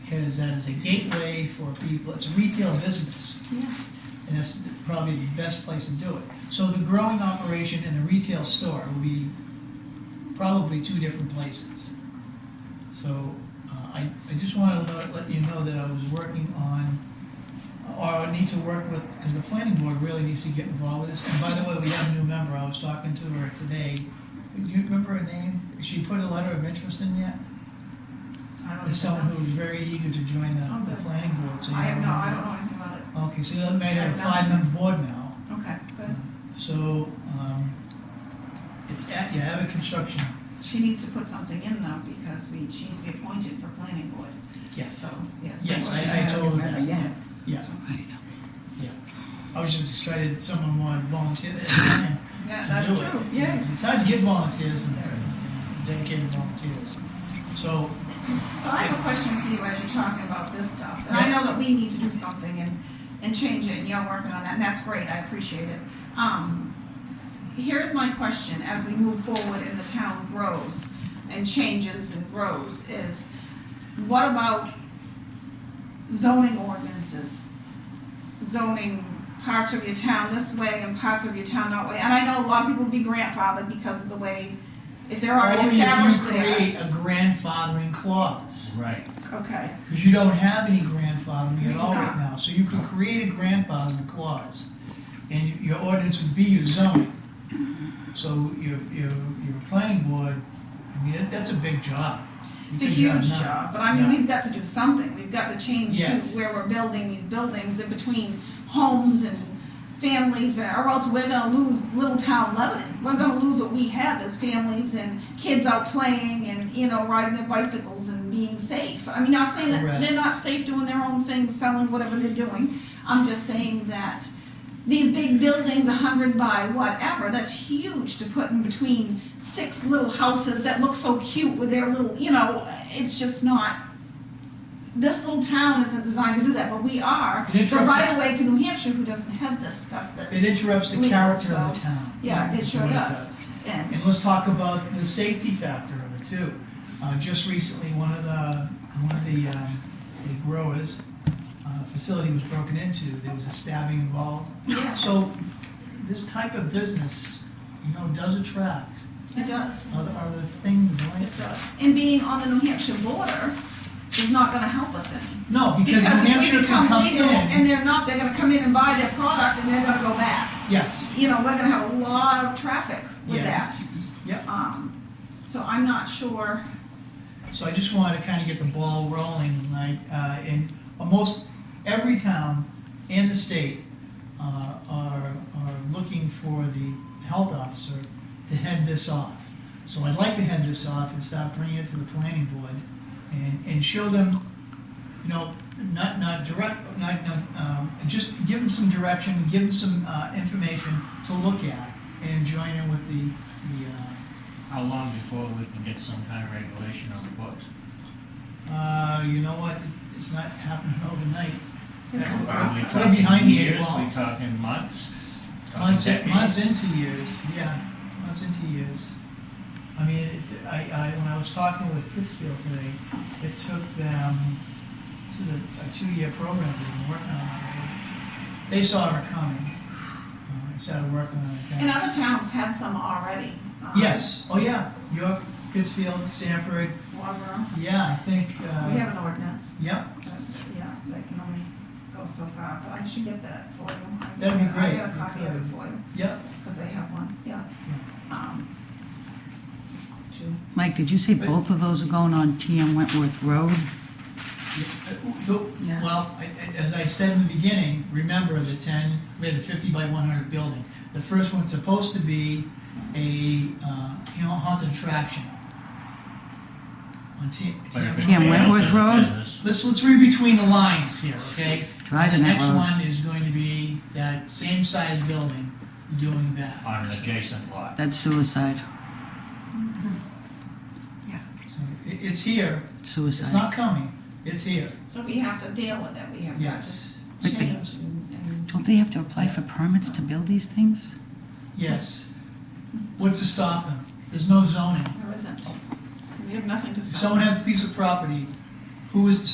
because that is a gateway for people, it's a retail business. Yeah. And that's probably the best place to do it. So the growing operation and the retail store will be probably two different places. So uh, I, I just wanted to let- let you know that I was working on, or I need to work with, because the planning board really needs to get involved with this. And by the way, we have a new member, I was talking to her today. Do you remember her name? She put a letter of interest in yet? I don't Is someone know. who was very eager to join Oh, the, the good. planning board, so you I have don't no, I don't know. know anything about it. Okay, so you might have a I have five-member board now, Okay, good. so, um, it's at, you have a construction. She needs to put something in though, because we, she needs to be appointed for planning board, so, yes. Yes, Well, she I- I has- told her that. Yeah. Yeah. I was just excited that someone wanted to volunteer that time Yeah, to that's do it. true, yeah. It's hard to get volunteers and Yes. dedicated volunteers. So, So I have a question for you as you're talking about this stuff, and I know that we need to do something and, and change it, and you're working on that, and that's great, I appreciate it. Um, here's my question, as we move forward and the town grows and changes and grows, is what about zoning ordinances? Zoning parts of your town this way and parts of your town that way, and I know a lot of people will be grandfathered because of the way, if they're already only Oh, if established you there. create a grandfathering clause, Right. Okay. because you don't have any grandfathering We at do all right not. now. So you could create a grandfathering clause, and you- your ordinance would be your zoning. Mm-hmm. So your, your, your planning board, I mean, that- that's a big job. You It's a could do that huge now. job, but I mean, Yeah. we've got to do something, we've got to change to Yes. where we're building these buildings in between homes and families, and- or else we're gonna lose little town Lebanon. We're gonna lose what we have as families and kids out playing and, you know, riding their bicycles and being safe. I mean, not saying that Correct. they're not safe doing their own thing, selling whatever they're doing, I'm just saying that these big buildings, a hundred by whatever, that's huge to put in between six little houses that look so cute with their little, you know, it's just not. This little town isn't designed to do that, but we are. It interrupts- We're right away to New Hampshire, who doesn't have this stuff that, It interrupts the We- character of the so- town. yeah, it is sure what does. And, And let's talk about the safety factor of it too. Uh, just recently, one of the, one of the, um, the growers, uh, facility was broken into, there was a stabbing involved. yes, So, this type of business, you know, does attract it does, other, other things like it that. does. And being on the New Hampshire border is not gonna help us any. No, because New if we Hampshire become can come legal And in, they're not, they're gonna come in and buy their product and they're gonna go back. yes, you know, we're gonna have a lot of traffic with that. Yes. Yep. Um, so I'm not sure, so I just wanted to kind of get the ball rolling, like, uh, in almost every town and the state, uh, are, are looking for the health officer to head this off. So I'd like to head this off and start bringing it to the planning board and, and show them, you know, not, not direct, not, not, um, just give them some direction, give them some, uh, information to look at and join in with the, the, uh, How long before we can get some kind of regulation on the books? Uh, you know what? It's not happening overnight. It's a We're- Are we process. We're behind the eight years? ball. We talking months? Talking Months, in- decades? months into years, yeah, months into years. I mean, it, I, I, when I was talking with Pittsfield today, it took them, this is a, a two-year program they've been working on. already. They saw it coming, uh, and started working on it. and then. other towns have some already. um, Yes, oh yeah, York, Pittsfield, Sanford, Waterboro, yeah, I think, we uh, have an ordinance, yeah, but, yeah, that can only go so far, but I should get that for you. I- That'd be I great have if you a copy of could. it for you, yeah. because they have one, yeah. Um, just to- Mike, did you say both of those are going on TM Wentworth Road? Uh, The- Yeah. Well, I- I- as I said in the beginning, remember the ten, we had the fifty by one hundred building. The first one's supposed to be a, uh, you know, haunted attraction. On T- But if it's Can't a wait. business, Wentworth Road? business, Let's, let's read between the lines here, okay? The Driving that next road. one is going to be that same size building doing that. On an adjacent lot. That's suicide, So it, it's here, it's suicide. not coming, it's here, So we have to deal with it, we have got to yes, But they- change and, and Don't they have to apply for permits to build these things? yes. What's to stop them? There's no zoning. there isn't, we have nothing to If stop. someone has a piece of property, who is the